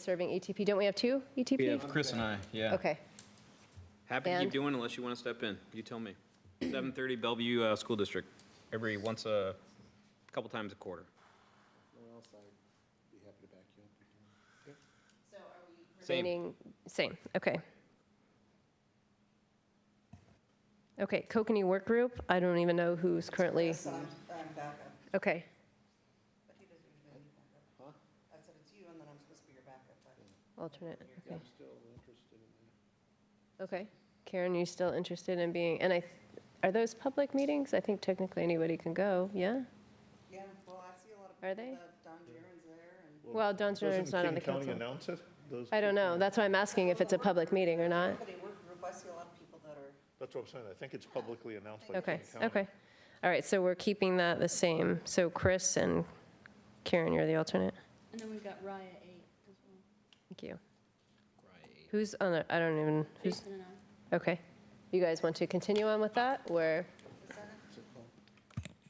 serving ETP. Don't we have two ETP? We have Chris and I, yeah. Okay. Happy to And- keep doing unless you want to step in. You tell me. 7:30 Bellevue uh, School District, every once a, couple times a quarter. Same. Remaining- Same, okay. Okay, Kokanee Work Group, I don't even know who's currently, So I'm, I'm backup, okay. but he doesn't usually do backup. I said, it's you, and then I'm supposed to be your backup, but Alternate, okay. I'm still interested in that. Okay. Karen, you still interested in being, and I, are those public meetings? I think technically anybody can go, yeah? Yeah, well, I see a lot of Are people they? that Don Jaren's there, and, Well, Don Jordan's not on the Doesn't King County council. announce it? Those I don't people- know, that's why I'm asking if it's a public meeting or not. but in work group, I see a lot of people that are, That's what I'm saying, I think it's publicly announced by Okay, King County. okay. All right, so we're keeping that the same. So Chris and Karen, you're the alternate. And then we've got Raya eight as well. Thank you. Who's on, the- I don't even, who's, Jason and I. okay. You guys want to continue on with that, or,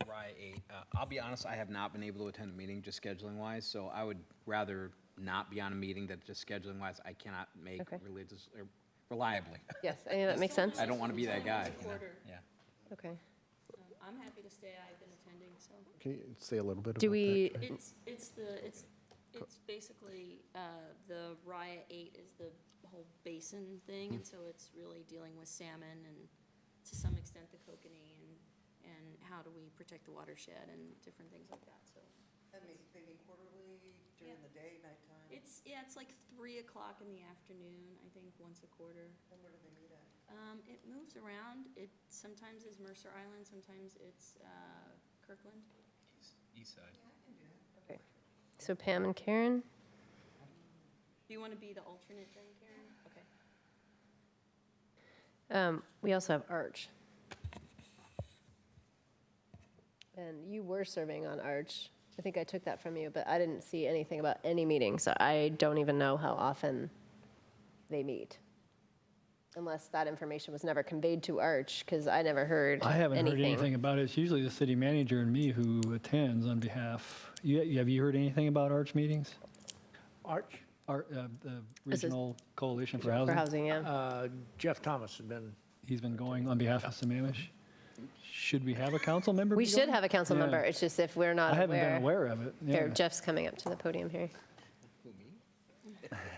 Right, eight. Uh, I'll be honest, I have not been able to attend a meeting just scheduling wise, so I would rather not be on a meeting that just scheduling wise, I cannot make Okay. religious, or reliably. yes, any of that makes sense? I don't want to be that guy, you know? Quarter. Yeah. Okay. Um, I'm happy to stay, I've been attending, so. Can you say a little bit about Do we, It's, it's the, it's, it's basically, uh, the Raya eight is the whole basin thing, and so it's really dealing with salmon and to some extent the kokanee and, and how do we protect the watershed and different things like that, so. they meet, they meet quarterly, during Yeah. the day, nighttime, It's, yeah, it's like three o'clock in the afternoon, I think, once a quarter. and where do they meet at? Um, it moves around. It sometimes is Mercer Island, sometimes it's uh, Kirkland. East side. so Pam and Karen? Do you want to be the alternate then, Karen? Okay. Um, We also have Arch. And you were serving on Arch. I think I took that from you, but I didn't see anything about any meeting, so I don't even know how often they meet. Unless that information was never conveyed to Arch, because I never heard I haven't heard anything about it. It's usually the city manager and me who attends on behalf. You, have you heard anything about Arch meetings? Arch, Ar uh, the This is- Regional Coalition for For Housing. housing, yeah. uh, Jeff Thomas has been, He's been going on behalf of Sammamish. Should we have a council member? We be should going? have a council Yeah. member, it's just if we're I not haven't been aware. aware of it. Here, yeah. Jeff's coming up to the podium here.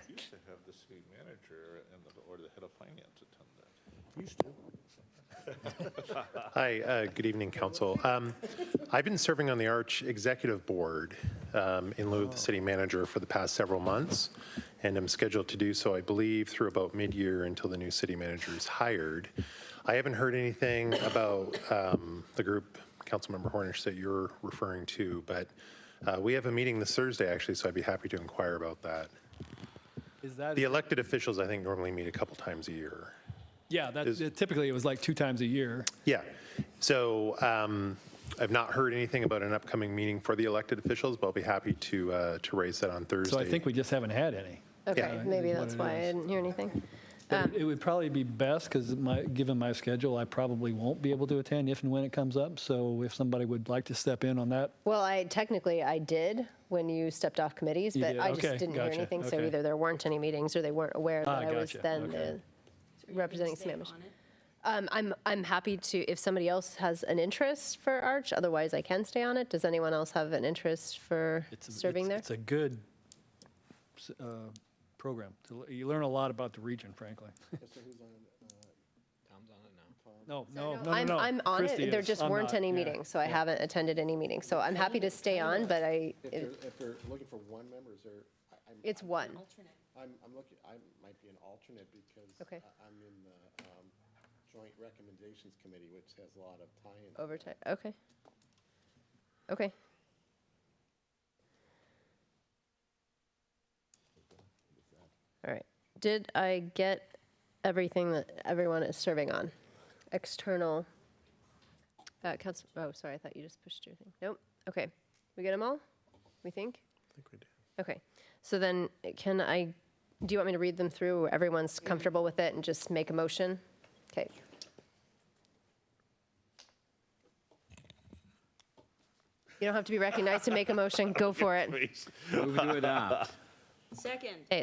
Used to have the city manager and the, or the head of finance attend that. used to. Hi, uh, good evening, council. Um, I've been serving on the Arch Executive Board um, in lieu of the city manager for the past several months, and I'm scheduled to do so, I believe, through about mid-year until the new city manager is hired. I haven't heard anything about um, the group, Councilmember Hornish, that you're referring to, but uh, we have a meeting this Thursday, actually, so I'd be happy to inquire about that. Is that? The elected officials, I think, normally meet a couple times a year. Yeah, that, is- typically it was like two times a year. Yeah. So um, I've not heard anything about an upcoming meeting for the elected officials, but I'll be happy to, uh, to raise that on Thursday. So I think we just haven't had any. Okay, is maybe what that's it why I is. didn't hear anything. But Um, it- it would probably be best, because my, given my schedule, I probably won't be able to attend if and when it comes up. So if somebody would like to step in on that, Well, I technically I did when you stepped off committees, but did, I just okay, didn't hear gotcha, anything. So okay. either there weren't any meetings or they weren't aware Ah, that I was gotcha, then okay. So you can Representing stay Sammamish. on it. the. Um, I'm I'm happy to if somebody else has an interest for Arch. Otherwise, I can stay on it. Does anyone else have an interest for it's, a- serving it's, there? it's a good s- uh, program. To l- You learn a lot about the region, frankly. Tom's on it now. No, no, no, no, I'm no. I'm on Christie it. There is. just I'm weren't not, any yeah. meetings, so I haven't attended any meetings. So I'm happy to stay on, but I If it- they're, if they're looking for one member, is there, I- I'm, it's one. Alternate. I'm, I'm looking, I might be an alternate because Okay. I- I'm in the um, Joint Recommendations Committee, which has a lot of tie-ins. Overtime. Okay. Okay. All right. Did I get everything that everyone is serving on? External. Uh, council. Oh, sorry. I thought you just pushed your thing. Nope. Okay. We get them all. We think. Okay. So then, can I? Do you want me to read them through? Everyone's comfortable with it, and just make a motion. Okay. You don't have to be recognized to make a motion. Go for it. Move to adopt. Second.